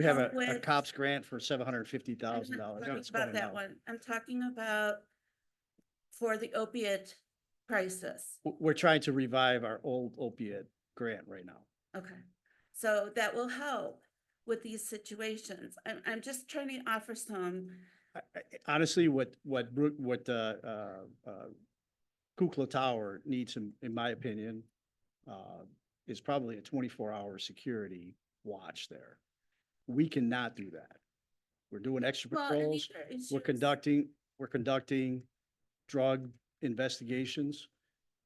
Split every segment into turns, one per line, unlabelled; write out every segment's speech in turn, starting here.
We have a, a
With-
cops grant for seven hundred and fifty
I'm
thousand
not
dollars.
talking About that one, I'm talking about for the opiate crisis.
We're trying to revive our old opiate grant right now.
Okay, so that will help with these situations. I'm, I'm just trying to offer some,
I- I- Honestly, what, what, Bru- what, uh, uh, uh, Kukla Tower needs, in, in my opinion, uh, is probably a twenty-four hour security watch there. We cannot do that. We're doing extra
well, and
patrols.
these are issues.
We're conducting, we're conducting drug investigations.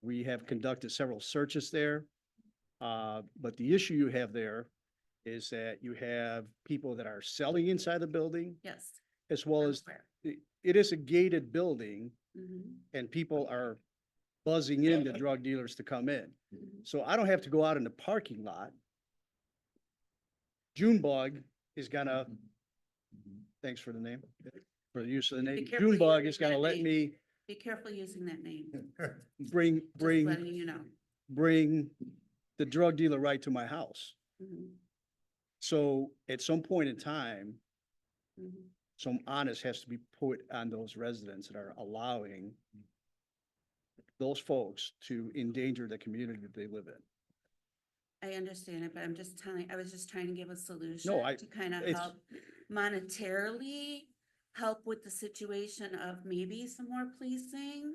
We have conducted several searches there. Uh, But the issue you have there is that you have people that are selling inside the building
Yes.
as well
I'm
as,
aware.
it it is a gated building
Mhm,
and people are buzzing in the drug dealers to come in.
mhm.
So I don't have to go out in the parking lot. Junebug is gonna, thanks for the name, for the use of the name.
Be careful you
Junebug
use
is gonna
that
let
name.
me
Be careful using that name, just
bring,
letting
bring,
you know.
bring the drug dealer right to my house.
Mhm,
So at some point in time,
mhm.
some onus has to be put on those residents that are allowing those folks to endanger the community that they live in.
I understand it, but I'm just telling, I was just trying to give a solution
I-
to kind of
it's-
help monetarily help with the situation of maybe some more policing.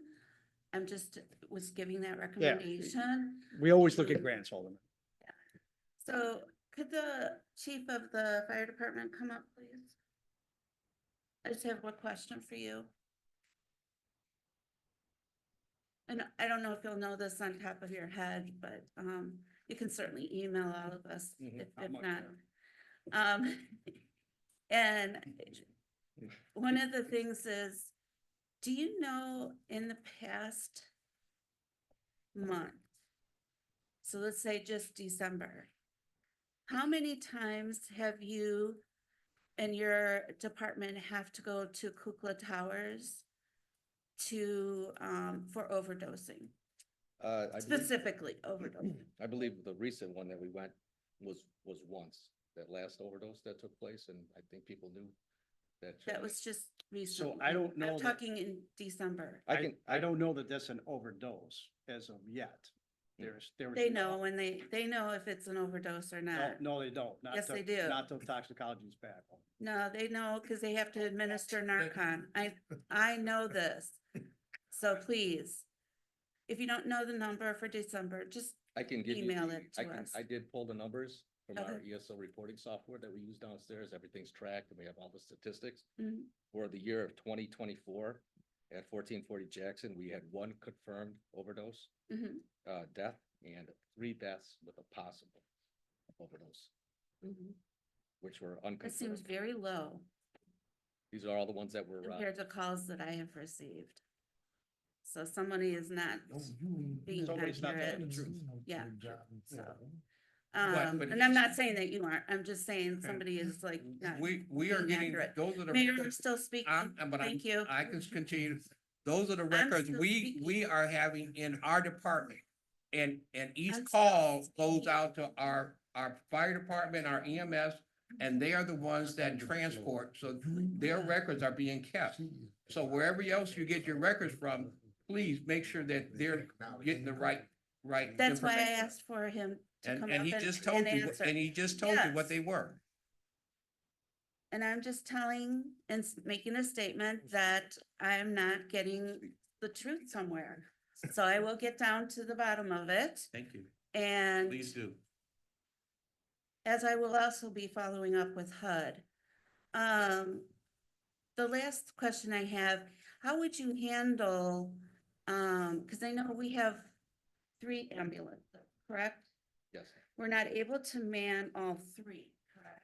I'm just, was giving that recommendation.
We always look at grants, Alderman.
So could the chief of the fire department come up, please? I just have one question for you. And I don't know if you'll know this on top of your head, but um, you can certainly email all of us
Mhm.
if
Not
if
much,
not. Um, and one of the things is, do you know in the past month? So let's say just December. How many times have you and your department have to go to Kukla Towers to, um, for overdosing,
Uh, I believe,
specifically overdosing?
I believe the recent one that we went was, was once, that last overdose that took place, and I think people knew that.
That was just recently.
So I don't know.
I'm
that-
talking in December.
I can,
I don't know that that's an overdose as of yet. There's, there was.
They know when they, they know if it's an overdose or
No,
not.
no, they don't. Not
Yes,
till-
they do.
Not till toxicology is back.
No, they know because they have to administer Narcan. I, I know this. So please, if you don't know the number for December, just,
I can give you.
email
the-
it
I
to
can-
us.
I did pull the numbers from our
Okay.
ESL reporting software that we use downstairs, everything's tracked, and we have all the statistics.
mm,
For the year of twenty twenty-four, at fourteen forty Jackson, we had one confirmed overdose,
mhm,
uh, death, and three deaths with a possible overdose,
mhm.
which were
That seems
unconfirmed.
very low
These are all the ones that were. uh,
compared to calls that I have received. So somebody is not, being
Somebody's not telling the
accurate.
truth.
Yeah. So, um,
But- but
and I'm not
it's-
saying that you aren't, I'm just saying
Okay.
somebody is like not.
We, we are
being
getting,
accurate.
those are the.
Mayor, I'm
records-
still speaking.
I'm- I'm- but I'm-
Thank you.
I can continue. Those are the records
still
we,
speaking.
we are having in our department. And, and each
I'm still
call goes
speaking.
out to our, our fire department, our EMS, and they are the ones that transport. So their records are being kept. So wherever else you get your records from, please make sure that they're getting the right, right.
That's why I
information.
asked for him to
And,
come up
and he just told
and
you, what-
answer.
and he just told you
Yes.
what they were.
And I'm just telling and s- making a statement that I'm not getting the truth somewhere. So I will get down to the bottom of it
Thank you.
and
Please do.
as I will also be following up with HUD. Um, the last question I have, how would you handle, um, because I know we have three ambulances, correct?
Yes.
We're not able to man all three, correct?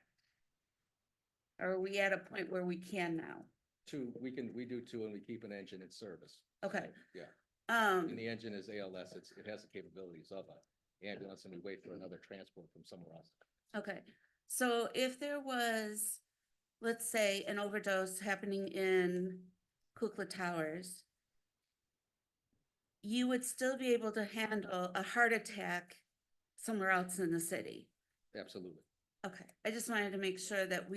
Or Are we at a point where we can now?
Two, we can, we do two and we keep an engine in service.
Okay,
Yeah,
um,
and the engine is ALS, it's, it has the capabilities of a ambulance and we wait for another transport from somewhere else.
okay, so if there was, let's say, an overdose happening in Kukla Towers, you would still be able to handle a heart attack somewhere else in the city.
Absolutely.
Okay, I just wanted to make sure that we